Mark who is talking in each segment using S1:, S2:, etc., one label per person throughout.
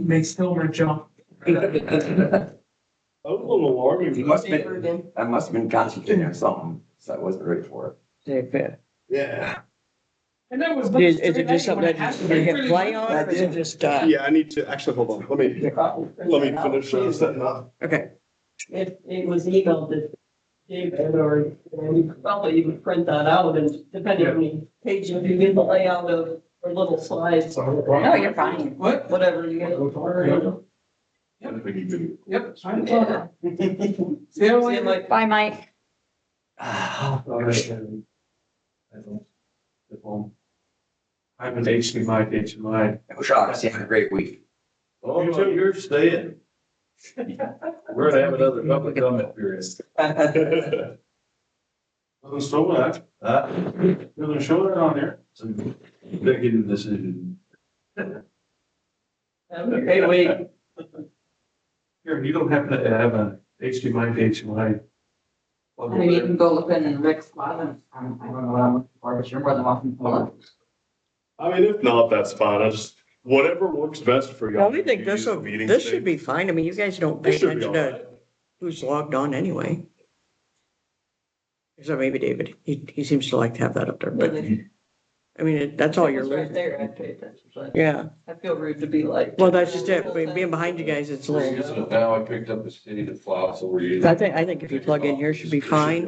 S1: makes Hilmer jump.
S2: That
S3: was a little alarming.
S4: must have been, I must have been concentrating on something, so I wasn't ready for it.
S3: Yeah.
S1: And that was.
S2: Is, is it just something that they hit play on or is it just, uh?
S3: Yeah, I need to, actually, hold on, let me, let me finish uh, setting up.
S2: Okay.
S5: It, it was emailed to David or, and you could probably even print that out and depending on the page, if you get the layout of, or little slides,
S6: No, you're fine.
S1: What?
S5: whatever you get.
S1: Yep. I'm fine. See you
S5: See,
S1: later.
S5: like,
S6: Bye, Mike.
S7: I'm an HDMI, HDMI.
S4: I wish I was having a great week.
S3: Oh,
S7: You two, you're staying. We're gonna have another public comment period.
S3: I'm so glad,
S7: Uh,
S3: they're gonna show that on there.
S7: so They're getting this in.
S5: have a great week.
S7: Here, you don't happen to have a HDMI, HDMI. plug over
S6: Maybe you
S7: there?
S6: can go look in Rick's closet. Um, I don't know what I'm looking for, but you're more than welcome to pull up.
S3: I mean, if not, that's fine, I just, whatever works best for you.
S2: Well, we think this will, this should be fine. I mean, you guys don't pay
S3: This should be
S2: attention
S3: all
S2: to
S3: right.
S2: who's logged on anyway. Except maybe David. He, he seems to like to have that up there, but I mean, it- that's all
S5: It
S2: you're
S5: was Right
S2: looking.
S5: there, I paid attention, but
S2: Yeah,
S5: I feel rude to be like.
S2: well, that's just it. Being being behind you guys, it's a little.
S8: Now I picked up a city that flops over you.
S2: I think, I think if you plug in here, it should be fine.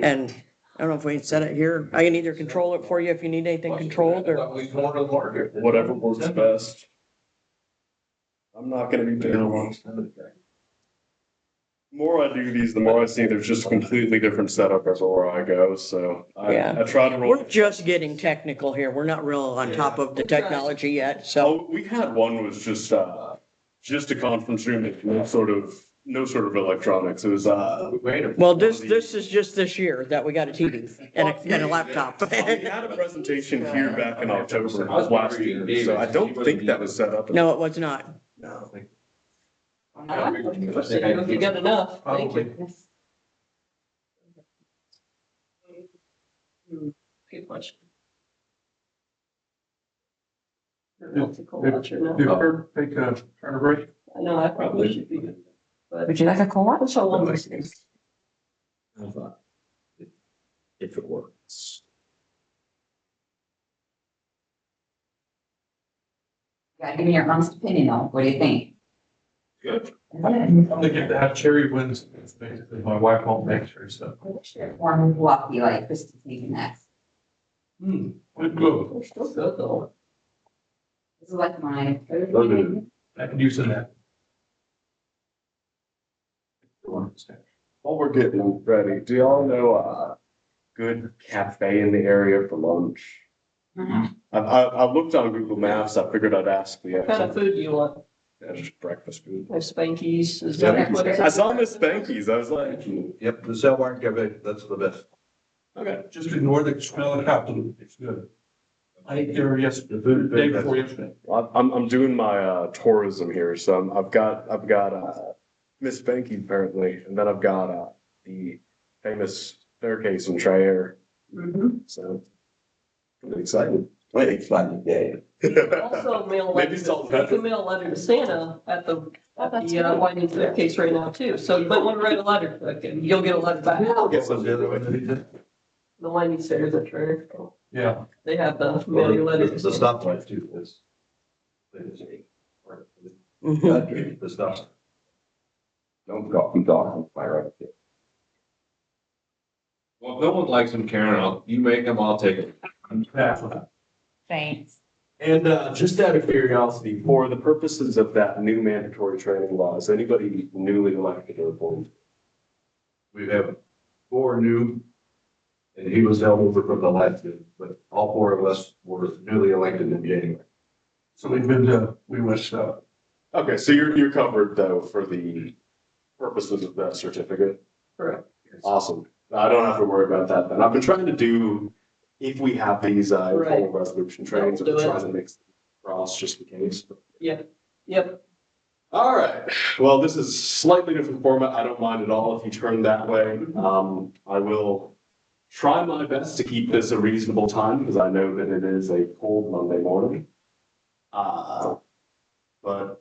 S2: And I don't know if we can set it here. I can either control it for you if you need anything controlled or.
S8: We go to the market.
S3: Whatever works best. I'm not gonna be picking one. The More I do these, the more I see there's just a completely different setup as where I go, so
S2: Yeah.
S3: I, I try to roll.
S2: We're just getting technical here. We're not real on top of the technology yet, so.
S3: Oh, we had one was just, uh, just a conference room, with no sort of, no sort of electronics, it was, uh.
S8: Wait a.
S2: Well, this, this is just this year that we got a TV and a, and a laptop.
S3: We had a presentation here back in October of last year, so I don't think that was set up.
S2: No, it was not.
S8: No.
S5: I was saying, If you got enough, thank you.
S8: Probably.
S5: Good question.
S7: If-
S5: Multicultural, no.
S7: Do you ever take a, turn a break?
S5: I know, I probably should be. But
S6: Would you like a co-op?
S5: that's how long this is.
S8: If it works.
S6: Yeah, give me your honest opinion though. What do you think?
S7: Good. I'm
S6: I
S7: gonna get to have cherry wins, basically, my wife won't make sure, so.
S6: wish it were more Milwaukee like Kristen's taking next.
S7: Hmm, good move.
S5: They're still good though.
S6: This is like my.
S8: Okay.
S7: I can use in that.
S3: While we're getting ready, do y'all know a good cafe in the area for lunch?
S6: Mhm.
S3: I, I, I looked on Google Maps, I figured I'd ask the,
S5: What kind of
S3: actual-
S5: food do you want?
S3: yeah, just breakfast food.
S5: Like Spankies? Is that what it's-
S3: I saw Miss Spanky's, I was like,
S8: Yep, the cell wire cabinet, that's the best.
S7: Okay. Just ignore the smell of the cat poop, it's good. I ate there yesterday, day before yesterday.
S3: Well, I'm, I'm doing my, uh, tourism here, so I'm- I've got, I've got, uh, Miss Spanky apparently, and then I've got, uh, the famous staircase in Trier,
S5: Mhm.
S3: so. I'm excited.
S4: Wait, it's like a day.
S5: Also mail,
S3: Maybe
S5: letter-
S3: salt
S5: you can mail a letter to Santa at the,
S6: Oh,
S5: at the uh, Whiting Staircase right now too. So you might want to write a letter, like, and you'll get a letter back.
S3: I'll get
S8: What
S3: some.
S8: was the other one that we did?
S5: The Whiting Stairs at Turner,
S7: Yeah.
S5: they have the mail
S8: The
S5: your letters.
S8: the stoplight too, is.
S2: Mhm.
S8: The stop.
S4: Don't go, I'm talking, fire up there.
S8: Well, if no one likes them, Karen, I'll, you make them, I'll take them. uh,
S6: Thanks.
S3: And uh, just out of curiosity, for the purposes of that new mandatory training law, is anybody newly elected to the board?
S8: We have four new. And he was held over from the last, year, but all four of us were newly elected in January.
S7: So we've been to, we went, uh,
S3: Okay, so you're, you're covered though for the purposes of that certificate?
S5: Correct.
S3: Awesome. I don't have to worry about that then. I've been trying to do, if we have these, uh,
S5: Right.
S3: formal resolution trainings, I've been
S5: Do it.
S3: trying to mix them across just in case.
S5: Yep,
S3: All right. Well, this is slightly different format. I don't mind at all if you turn that way. Um, I will try my best to keep this a reasonable time because I know that it is a cold Monday morning. Uh, but